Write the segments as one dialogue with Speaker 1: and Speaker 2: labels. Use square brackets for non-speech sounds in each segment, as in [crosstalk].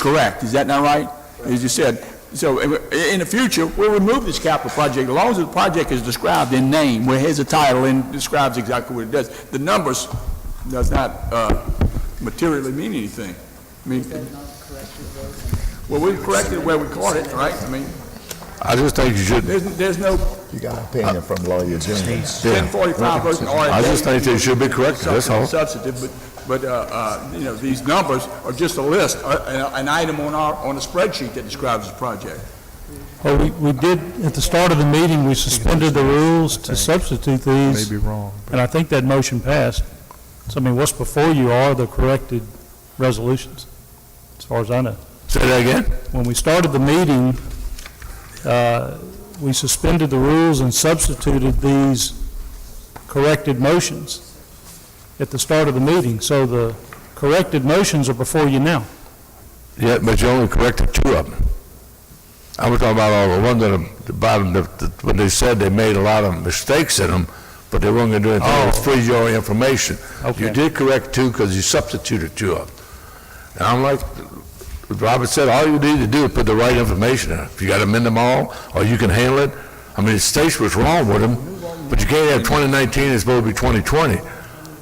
Speaker 1: Correct, is that not right? As you said, so i- in the future, we'll remove this capital project, as long as the project is described in name, where here's a title and describes exactly what it does. The numbers does not uh, materially mean anything. I mean, well, we corrected where we caught it, right? I mean,
Speaker 2: I just think you should,
Speaker 1: there's, there's no
Speaker 3: You got an opinion from lawyer Jennings.
Speaker 1: ten forty-five version or.
Speaker 2: I just think they should be corrected, that's all.
Speaker 1: Substantive, but, but, uh, uh, you know, these numbers are just a list, uh, an an item on our, on a spreadsheet that describes the project.
Speaker 4: Well, we, we did, at the start of the meeting, we suspended the rules to substitute these,
Speaker 5: Maybe wrong.
Speaker 4: and I think that motion passed. So, I mean, what's before you are the corrected resolutions, as far as I know.
Speaker 2: say that again?
Speaker 4: When we started the meeting, uh, we suspended the rules and substituted these corrected motions at the start of the meeting, so the corrected motions are before you now.
Speaker 2: Yeah, but you only corrected two of them. I was talking about all the ones at the bottom, that- that when they said they made a lot of mistakes in them, but they weren't going to do anything, it was free your information. You
Speaker 4: Okay.
Speaker 2: did correct two because you substituted two of them. And I'm like, Robert said, all you need to do is put the right information in. If you got to amend them all, or you can handle it. I mean, the states was wrong with them, but you can't have 2019, it's supposed to be 2020.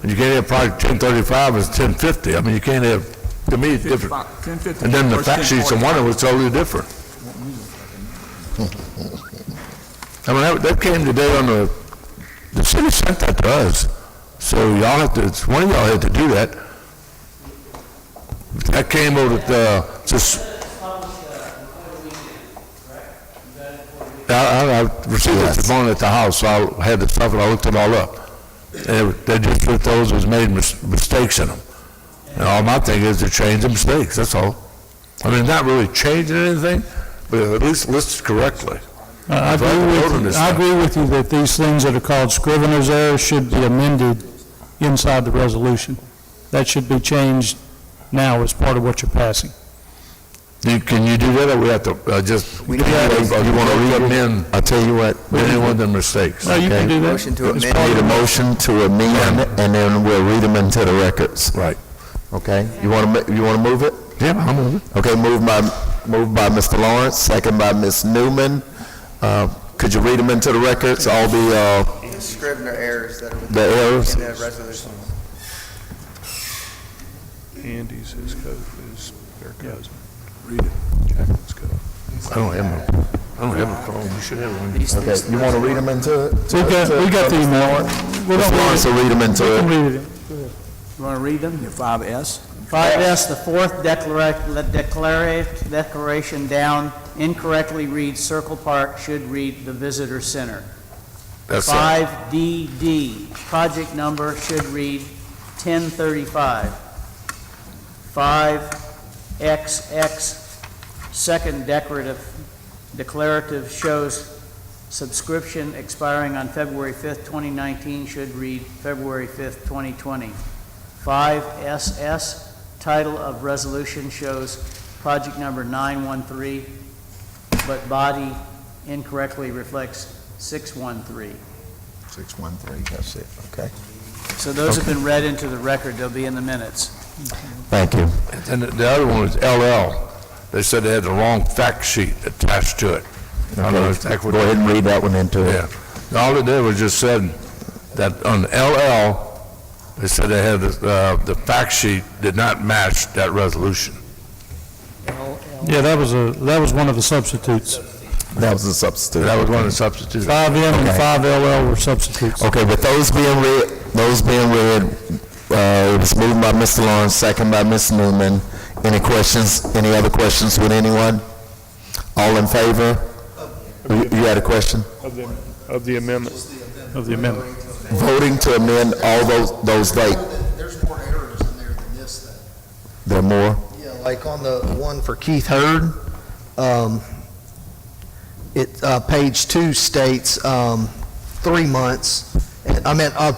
Speaker 2: And you can't have project 1035, it's 1050. I mean, you can't have, to me, it's different.
Speaker 1: Ten fifty.
Speaker 2: And then the fact sheets on one of them was totally different. I mean, that- that came today on the, the city sent that to us, so y'all have to, it's- one of y'all had to do that. That came over at, uh, just... I, I- I received it this morning at the house, so I had the stuff and I looked it all up. And it- they just put those as made mis- mistakes in them. And all my thing is to change the mistakes, that's all. I mean, not really changing anything, but at least list it correctly.
Speaker 4: Uh, I
Speaker 2: I'd like to vote
Speaker 4: agree
Speaker 2: on
Speaker 4: with,
Speaker 2: this
Speaker 4: I
Speaker 2: now.
Speaker 4: agree with you that these things that are called scrivener's errors should be amended inside the resolution. That should be changed now as part of what you're passing.
Speaker 2: You- Can you do that, or we have to uh, just, or
Speaker 3: We
Speaker 2: you
Speaker 3: don't have to-
Speaker 2: want to recommend
Speaker 3: I'll tell you what.
Speaker 2: any one of the mistakes?
Speaker 4: No, you can do that.
Speaker 3: Motion to amend. Need a motion to amend, and then we'll read them into the records.
Speaker 2: Right.
Speaker 3: Okay? You want to, you want to move it?
Speaker 2: Yeah, I'm over it.
Speaker 3: Okay, moved by, moved by Mr. Lawrence, second by Ms. Newman. Uh, Could you read them into the records, all the, uh,
Speaker 6: Scrivener errors that are within
Speaker 3: the errors?
Speaker 6: the resolution.
Speaker 5: Andy's, his code is their cousin.
Speaker 2: I don't have my, I don't have a phone, you should have one.
Speaker 3: Okay, you want to read them into it?
Speaker 4: We got, we got the email. We
Speaker 3: Mr.
Speaker 4: don't
Speaker 3: Lawrence
Speaker 4: need
Speaker 3: will read them
Speaker 4: it. We
Speaker 3: into
Speaker 4: can
Speaker 3: it.
Speaker 4: read it.
Speaker 7: You want to read them, your five S?
Speaker 8: Five S, the fourth declara- declara- declaration down incorrectly reads Circle Park, should read the Visitor Center.
Speaker 2: That's all.
Speaker 8: Five DD, project number should read 1035. Five XX, second decorative, declarative shows subscription expiring on February 5th, 2019, should read February 5th, 2020. Five SS, title of resolution shows project number 913, but body incorrectly reflects 613.
Speaker 3: 613, that's it, okay.
Speaker 8: So those have been read into the record, they'll be in the minutes.
Speaker 3: Thank you.
Speaker 2: And the- the other one was LL, they said they had the wrong fact sheet attached to it. I don't know if
Speaker 3: Okay,
Speaker 2: that
Speaker 3: Go
Speaker 2: would-
Speaker 3: ahead and read that one into it.
Speaker 2: Yeah, all it did was just said that on LL, they said they had, the, uh, the fact sheet did not match that resolution.
Speaker 4: Yeah, that was a, that was one of the substitutes.
Speaker 3: That was a substitute.
Speaker 2: That was one of the substitutes.
Speaker 4: Five M and
Speaker 3: Okay.
Speaker 4: five LL were substitutes.
Speaker 3: Okay, with those being read, those being read, uh, it was moved by Mr. Lawrence, second by Ms. Newman. Any questions, any other questions with anyone? All in favor? You you had a question?
Speaker 5: Of the, of the amendment.
Speaker 4: Of the amendment.
Speaker 3: Voting to amend all those, those dates.
Speaker 6: There's more errors in there than this thing.
Speaker 3: There are more?
Speaker 6: Yeah, like on the one for Keith Hurd, um, it, uh, page two states, um, three months. And- I meant, uh,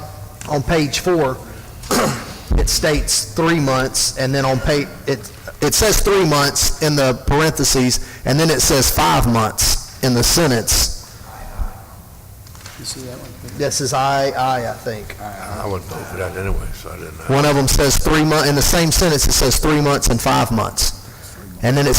Speaker 6: on page four, [clears throat] it states three months, and then on pa, it, it says three months in the parentheses, and then it says five months in the sentence.
Speaker 7: You see that one?
Speaker 6: This is I, I, I think.
Speaker 2: I wouldn't vote for that anyway, so I didn't know.
Speaker 6: One of them says three months, in the same sentence, it says three months and five months. And then it